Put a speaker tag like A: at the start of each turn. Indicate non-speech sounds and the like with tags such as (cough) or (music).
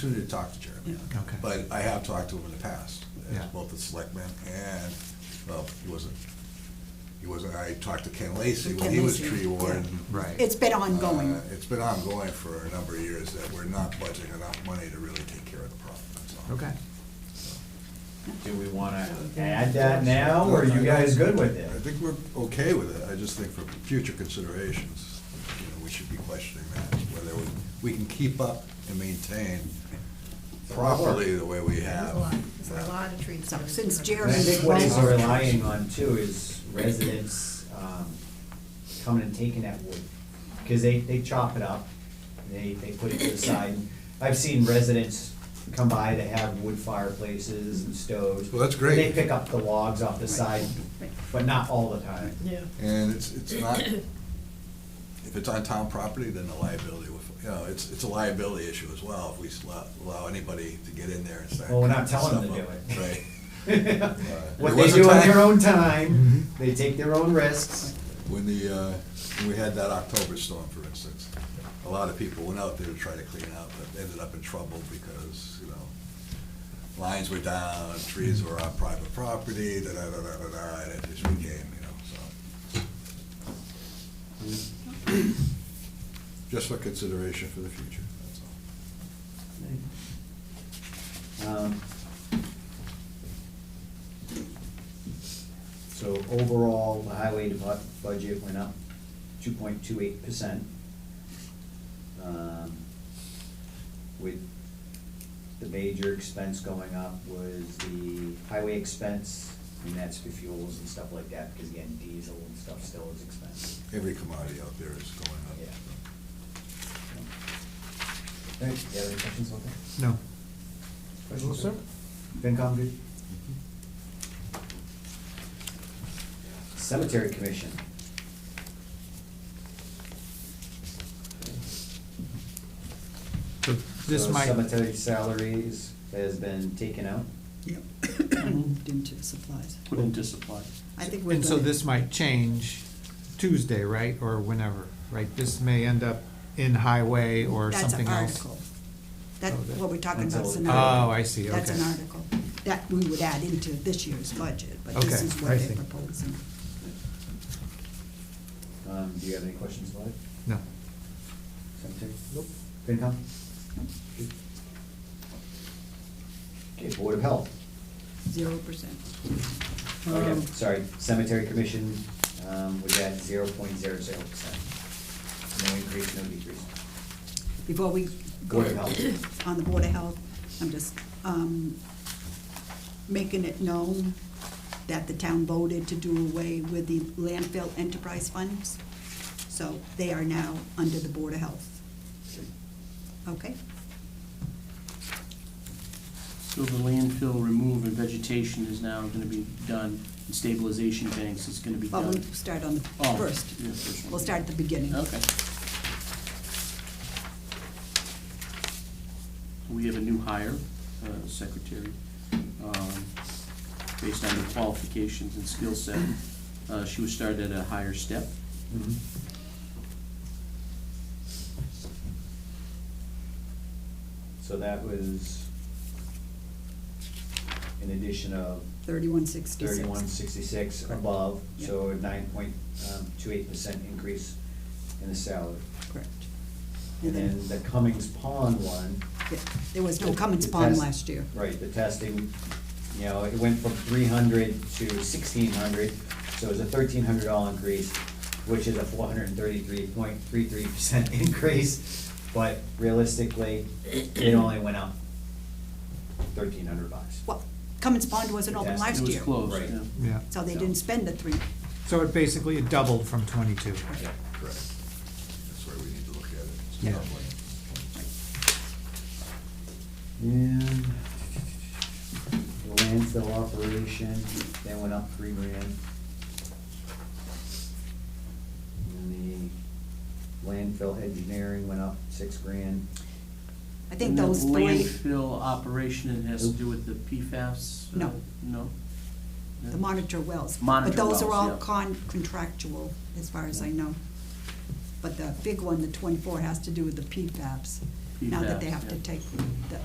A: opportunity to talk to Jeremy. on it.
B: Okay.
A: But I have talked to him in the past, as
B: Yeah.
A: both the selectman and, well, he wasn't, he wasn't, I talked to Ken Lacy when
C: Ken
A: he was
C: Lacy,
A: tree
C: yeah.
A: warden.
B: Right.
C: It's been
A: Uh,
C: ongoing.
A: It's been ongoing for a number of years that we're not budgeting enough money to really take care of the problem, that's all.
B: Okay.
D: Do we wanna add that now, or are you guys good with
A: I
D: it?
A: think we're okay with it, I just think for future considerations, you know, we should be questioning that, whether we, we can keep up and maintain properly the way we
E: There's
A: have.
E: a lot, there's a lot of trees.
C: So
E: that are-
C: since
D: And I
C: Jeremy-
D: think what he's relying on too is residents, um, coming and taking that wood. Cause they, they chop it up, they, they put it to the side. I've seen residents come by, they have wood fireplaces and stoves.
A: Well, that's great.
D: They pick up the logs off the side, but not all the time. (laughs)
E: Yeah.
A: And it's, it's not, if it's on town property, then the liability, would- you know, it's, it's a liability issue as well, if we s- allow, allow anybody to get in there and start.
D: Well, we're not telling them to
A: stuff up.
D: do it. (laughs)
A: Right. There
D: What they
A: was a
D: do on
A: time-
D: their own time, they take their own risks.
A: When the, uh, when we had that October storm, for instance, a lot of people went out there to try to clean up, but ended up in trouble because, you know, lines were down, trees were on private property, da-da-da-da-da, and it just became, you know, so. Just for consideration for the future, that's all.
D: Um, So overall, the highway debu- budget went up two point two eight percent. um, With the major expense going up was the highway expense, and that's for fuels and stuff like that, because again, diesel and stuff still is expensive.
A: Every commodity out there is going up.
D: Yeah. All right, you have any questions on that?
B: No.
D: Questions, sir? FinCom, good? Cemetery Commission.
B: So this
D: So
B: might,
D: Cemetery salaries has been taken out.
C: Yep. Moved into the supplies.
F: put into supply.
C: I think we're
B: and so
C: gonna-
B: this might change Tuesday, right, or whenever, right? This may end up in highway or
C: That's
B: something
C: an
B: else.
C: article. That,
B: Oh, that-
C: what we're talking about is an
D: Until-
C: article.
B: Oh, I see,
C: That's an
B: okay.
C: article that we would add into this year's budget, but this
B: Okay,
C: is
B: I
C: what they're
B: see.
C: proposing.
D: Um, do you have any questions about it?
B: No.
D: Cemetery? Nope. FinCom? Good. Okay, Board of Health.
C: Zero percent.
D: Okay, sorry, Cemetery Commission, um, was at zero point zero zero percent. No increase, no decrease.
C: Before we go
D: Board of
C: (coughs)
D: Health.
C: on the Board of Health, I'm just um, making it known that the town voted to do away with the landfill enterprise funds. So they are now under the Board of Health. Okay?
F: So the landfill remove and vegetation is now gonna be done, and stabilization banks is gonna be
C: Well, we'll
F: done.
C: start on the
F: Oh,
C: first.
F: yeah, first one.
C: We'll start at the beginning.
F: Okay. We have a new hire, uh, secretary, um, based on the qualifications and skill set. Uh, She was started at a higher step.
D: So that was an addition of
C: Thirty-one sixty-six.
D: thirty-one sixty-six
C: Correct.
D: above, so a nine point um, two eight percent increase in the salary.
C: Correct.
D: And then the Cummings Pond one,
C: Yeah, There was no
D: The-
C: Cummins
D: the
C: Pond
D: test-
C: last year.
D: right, the testing, you know, it went from three hundred to sixteen hundred, so it was a thirteen hundred dollar increase, which is a four hundred and thirty-three point three three percent (laughs) increase, but realistically, it only went up thirteen hundred bucks.
C: Well, Cummins Pond wasn't open
D: Yes,
C: last
F: It
C: year.
F: was closed,
D: Right.
F: yeah.
B: Yeah.
C: So they didn't spend the three.
B: So it basically it doubled from twenty-two.
D: Yeah.
A: Correct. That's where we need to look at it. It's
B: Yeah.
A: probably-
D: And the landfill operation, that went up three grand. And the landfill engineering went up six grand.
C: I think
F: And that
C: those three,
F: Landfill operation, it has to do with the PFAS? uh,
C: No.
F: No?
C: the monitor wells.
F: Monitor
C: But those are
F: wells,
C: all
F: yeah.
C: con, contractual, as far as I know. But the big one, the twenty-four, has to do with the PFABs. Now that they
F: PFAS,
C: have to
F: yeah.
C: take the